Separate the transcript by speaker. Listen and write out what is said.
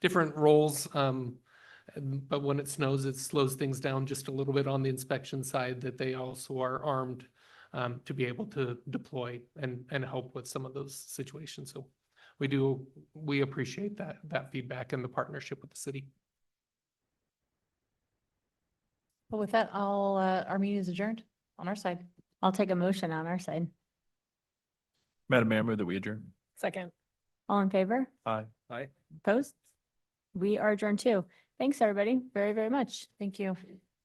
Speaker 1: different roles. Um, and- but when it snows, it slows things down just a little bit on the inspection side that they also are armed um, to be able to deploy and, and help with some of those situations. So we do, we appreciate that, that feedback and the partnership with the city.
Speaker 2: Well, with that, I'll, uh, our meeting is adjourned on our side.
Speaker 3: I'll take a motion on our side.
Speaker 4: Madam Mayor, I move that we adjourn.
Speaker 2: Second.
Speaker 3: All in favor?
Speaker 4: Aye. Aye.
Speaker 3: Opposed? We are adjourned too. Thanks, everybody, very, very much.
Speaker 2: Thank you.